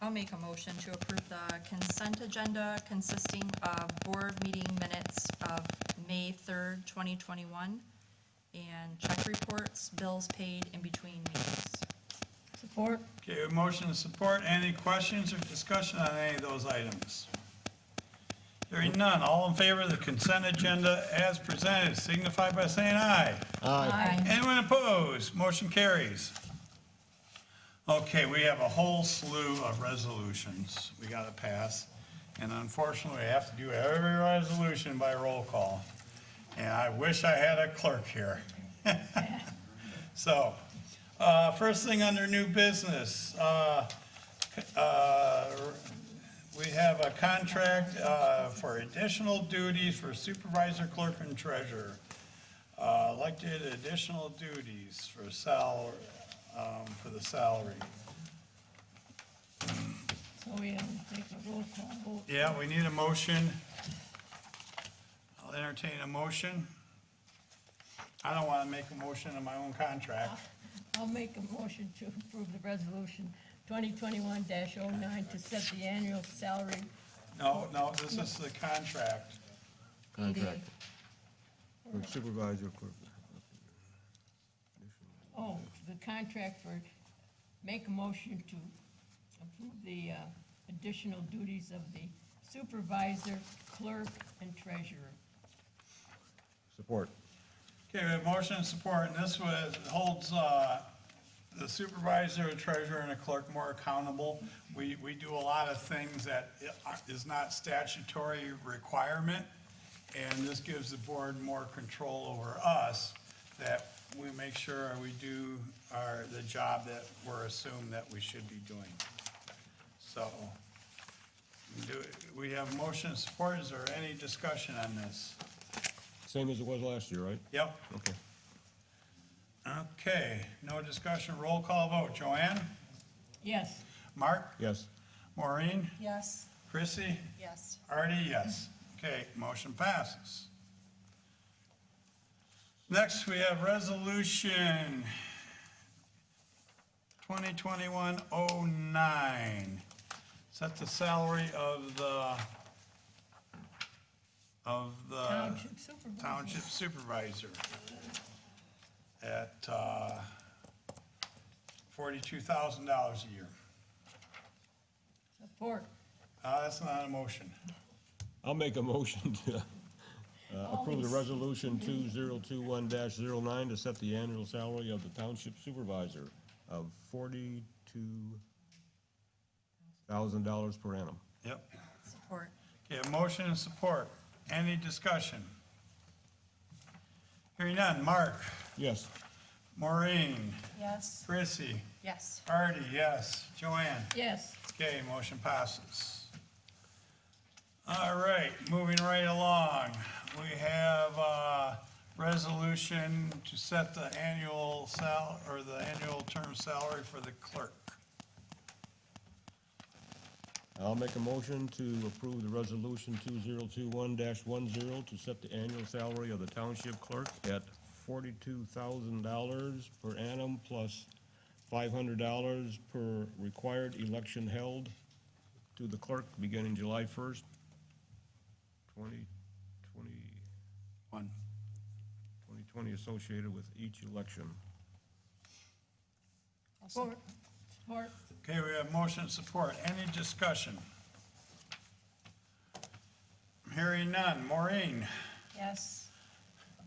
I'll make a motion to approve the consent agenda consisting of board meeting minutes of May third, twenty twenty-one, and check reports, bills paid in between meetings. Support? Okay, a motion and support. Any questions or discussion on any of those items? Hearing none. All in favor of the consent agenda as presented, signify by saying aye. Aye. Anyone opposed? Motion carries. Okay, we have a whole slew of resolutions we gotta pass, and unfortunately, we have to do every resolution by roll call. And I wish I had a clerk here. So, uh, first thing under new business, uh, uh, we have a contract, uh, for additional duties for supervisor, clerk, and treasurer. Uh, elected additional duties for salary, um, for the salary. So we have to take a roll call vote. Yeah, we need a motion. I'll entertain a motion. I don't wanna make a motion in my own contract. I'll make a motion to approve the resolution twenty twenty-one 9 to set the annual salary. No, no, this is the contract. Contract. Or supervisor, clerk. Oh, the contract for, make a motion to approve the uh, additional duties of the supervisor, clerk, and treasurer. Support. Okay, we have motion and support, and this was, holds, uh, the supervisor, treasurer, and a clerk more accountable. We, we do a lot of things that i- is not statutory requirement, and this gives the board more control over us, that we make sure we do our, the job that we're assumed that we should be doing. So, do, we have motion and support, is there any discussion on this? Same as it was last year, right? Yep? Okay. Okay, no discussion, roll call vote. Joanne? Yes, Mark? Yes. Maureen? Yes. Chrissy? Yes. Artie, yes. Okay, motion passes. Next, we have Resolution 2021-09. Set the salary of the, of the. township supervisor. Uh, Township Supervisor at uh, $42,000 a year. Support. Uh, That's not a motion. I'll make a motion to uh, approve the Always. resolution two zero two one 9 to set the annual salary of the township supervisor of forty-two thousand dollars per annum. Yep. Support. Okay, a motion and support. Any discussion? Hearing none. Mark, Yes. Maureen, Yes. Chrissy, Yes. Artie, yes. Joanne? Yes, Okay, motion passes. All right, moving right along. We have a resolution to set the annual sal, or the annual term salary for the clerk. I'll make a motion to approve the resolution two zero two one 10 to set the annual salary of the township clerk at forty-two thousand dollars per annum plus five hundred dollars per required election held to the clerk beginning July first, twenty twenty, One. twenty twenty associated with each election. support, support. Okay, we have motion and support. Any discussion? Hearing none. Maureen? Yes.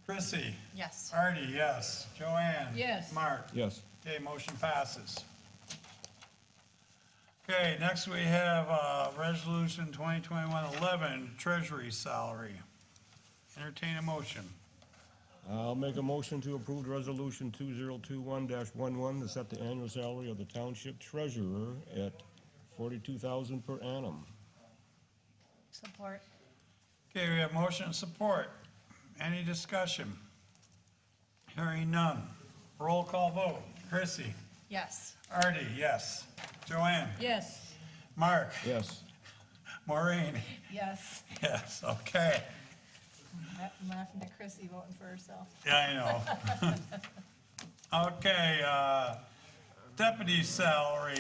Chrissy? Yes. Artie, yes. Joanne? Yes. Mark? Yes. Okay, motion passes. Okay, next we have, uh, resolution 2021-11, treasury salary. Entertain a motion. I'll make a motion to approve resolution two zero two one 11 to set the annual salary of the township treasurer at forty-two thousand per annum. Support. Okay, we have motion and support. Any discussion? Hearing none. Roll call vote. Chrissy? Yes. Artie, yes. Joanne? Yes, Mark? Yes. Maureen? Yes, Yes, okay. I'm laughing at Chrissy voting for herself. Yeah, I know. Okay, uh, deputy salary,